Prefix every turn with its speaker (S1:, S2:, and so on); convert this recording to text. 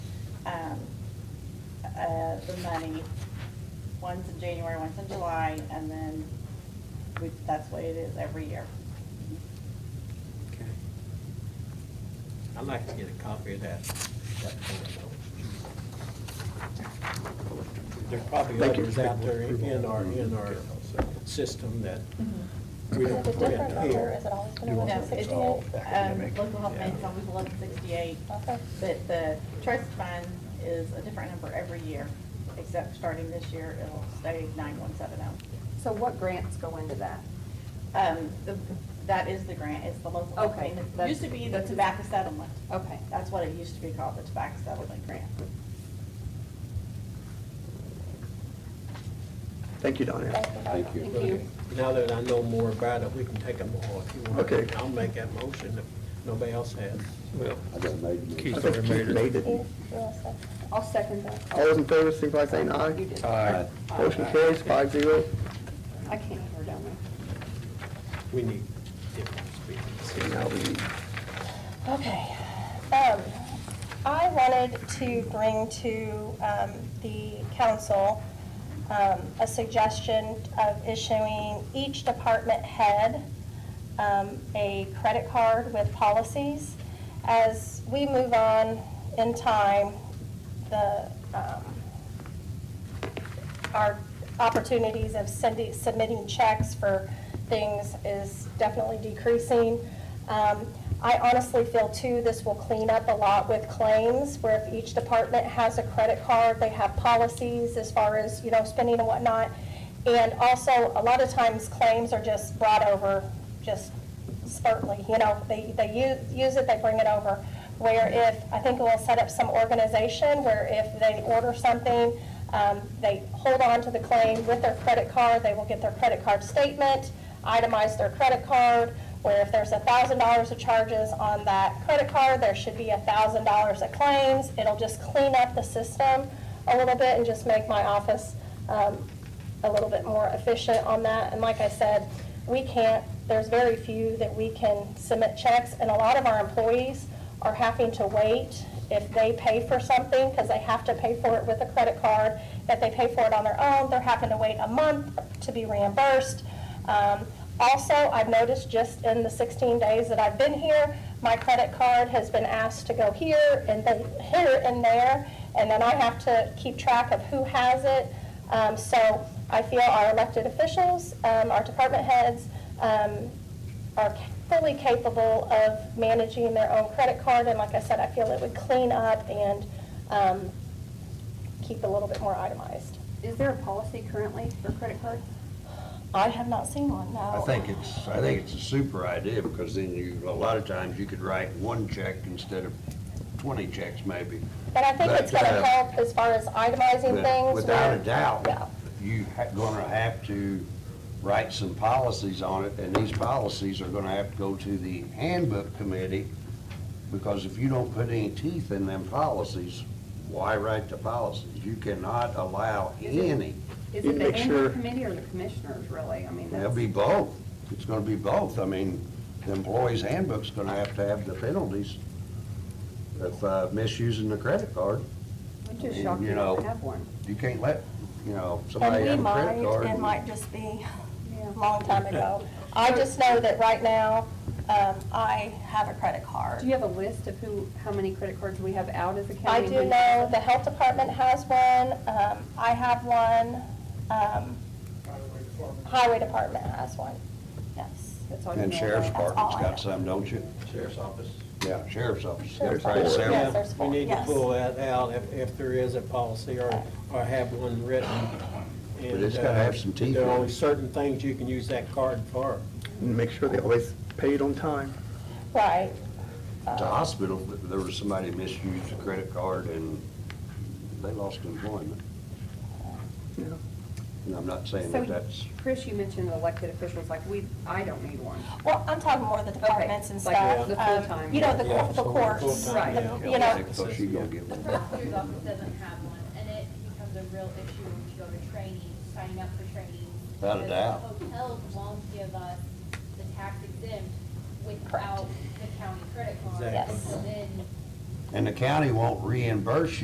S1: um, uh, the money, once in January, once in July, and then we, that's what it is every year.
S2: Okay. I'd like to get a copy of that. that photo. There's probably
S3: Thank you.
S2: others out there in our, in our system that we don't
S4: It's a
S2: put in
S4: Mm-hmm. different number,
S2: here.
S4: is it always
S3: Do
S4: been
S3: you
S4: eleven
S3: want
S1: No,
S3: to
S1: it's,
S3: fix
S4: sixty-eight?
S3: all
S1: um,
S3: academic?
S1: local health
S2: Yeah.
S1: maintenance always eleven sixty-eight,
S4: Okay,
S1: but the trust fund is a different number every year, except starting this year, it'll stay nine one seven oh.
S5: So what grants go into that?
S1: Um, the, that is the grant, it's the local health
S5: Okay,
S1: maintenance,
S5: that's-
S1: used to be the
S5: that's-
S1: tobacco settlement.
S5: Okay.
S1: That's what it used to be called, the tobacco settlement grant.
S3: Oh. Thank you, Donna.
S4: thank you. Thank
S5: Thank you.
S2: Now that I know more about it, we can take them all if you want.
S3: Okay.
S2: I'll make that motion if nobody else has.
S6: Well,
S7: I don't know.
S3: I
S6: Keith
S3: think
S6: already
S3: Keith
S6: made
S3: made
S6: it.
S3: it. All
S4: You're set.
S5: I'll second that. Oh,
S3: those in favor, signify by saying
S5: You
S3: aye.
S5: did.
S6: Aye.
S3: Motion carries five zero.
S5: I can't hear down
S2: We need different speakers.
S3: Now we need
S4: Okay. Um, I wanted to bring to um, the council um, a suggestion of issuing each department head um, a credit card with policies. As we move on in time, the, um, our opportunities of sending, submitting checks for things is definitely decreasing. Um, I honestly feel too, this will clean up a lot with claims, where if each department has a credit card, they have policies as far as, you know, spending and whatnot. And also, a lot of times claims are just brought over, just spurtly, you know, they, they u- use it, they bring it over. Where if, I think we'll set up some organization where if they order something, um, they hold on to the claim with their credit card, they will get their credit card statement, itemize their credit card, where if there's a thousand dollars of charges on that credit card, there should be a thousand dollars of claims. It'll just clean up the system a little bit and just make my office, um, a little bit more efficient on that. And like I said, we can't, there's very few that we can submit checks, and a lot of our employees are having to wait if they pay for something, because they have to pay for it with a credit card. If they pay for it on their own, they're having to wait a month to be reimbursed. Um, Also, I've noticed just in the 16 days that I've been here, my credit card has been asked to go here and then here and there, and then I have to keep track of who has it. Um, So I feel our elected officials, um, our department heads, um, are fully capable of managing their own credit card. And like I said, I feel it would clean up and um, keep a little bit more itemized.
S5: Is there a policy currently for credit cards?
S4: I have not seen one, no.
S7: I think it's, I think it's a super idea, because then you, a lot of times you could write one check instead of twenty checks maybe.
S4: But I think it's going
S7: But,
S4: to
S7: uh,
S4: help as far as itemizing
S7: With-
S4: things.
S7: Without
S4: where-
S7: a
S4: Yeah.
S7: doubt, you ha- gonna have to write some policies on it, and these policies are gonna have to go to the handbook committee, because if you don't put any teeth in them policies, why write the policies? You cannot allow any,
S5: Is
S3: You
S5: it the
S3: make sure-
S5: handbook committee or the commissioners, really? I mean,
S7: it'll
S5: that's,
S7: be both, it's gonna be both, I mean, the employee's handbook's gonna have to have the penalties of uh, misusing the credit card,
S5: I'm just
S7: you
S5: shocked you
S7: know,
S5: don't have one.
S7: you can't let, you know, somebody
S4: And
S7: have
S4: we
S7: a credit card.
S4: might, it
S7: and-
S4: might just be
S5: Yeah.
S4: a long time ago. I just know that right now, um, I have a credit card.
S5: Do you have a list of who, how many credit cards we have out as a county?
S4: I do know the health department has one, um, I have one, um, highway department has one, yes.
S5: That's all you know.
S7: And sheriff's
S5: about.
S7: department's
S4: all I know.
S7: got some, don't you?
S2: Sheriff's Office.
S7: Yeah, sheriff's office.
S4: Sheriff's
S7: Right,
S4: office,
S7: Sarah?
S4: Yes, there's
S2: We
S4: four,
S2: need to
S4: yes.
S2: pull that out if, if there is a policy or, or have one written.
S7: But it's
S2: And,
S7: gotta
S2: uh,
S7: have some teeth
S2: There are
S7: in it.
S2: only certain things you can use that card for.
S3: and make sure they always pay it on time.
S4: Right, uh,
S7: At the hospital, there was somebody misused a credit card and they lost employment.
S3: Yeah.
S7: And I'm not saying
S5: So,
S7: that that's,
S5: Chris, you mentioned elected officials, like we, I don't need one.
S4: well, I'm talking more of the departments and
S5: like
S4: stuff.
S5: the
S4: um,
S5: full-time.
S4: You know, the
S2: Yeah,
S4: cour- the
S2: so
S4: courts,
S2: full-time,
S4: the-
S2: yeah.
S4: you know,
S7: so she gonna get
S8: The
S7: one.
S8: prosecutor's office doesn't have one, and it becomes a real issue when you go to training, signing up for training.
S7: Without a
S8: because
S7: doubt.
S8: Hotels won't give us the tax exempt
S4: Correct.
S8: without the county credit card.
S2: Exactly.
S4: Yes.
S8: So then
S7: And the county won't reimburse you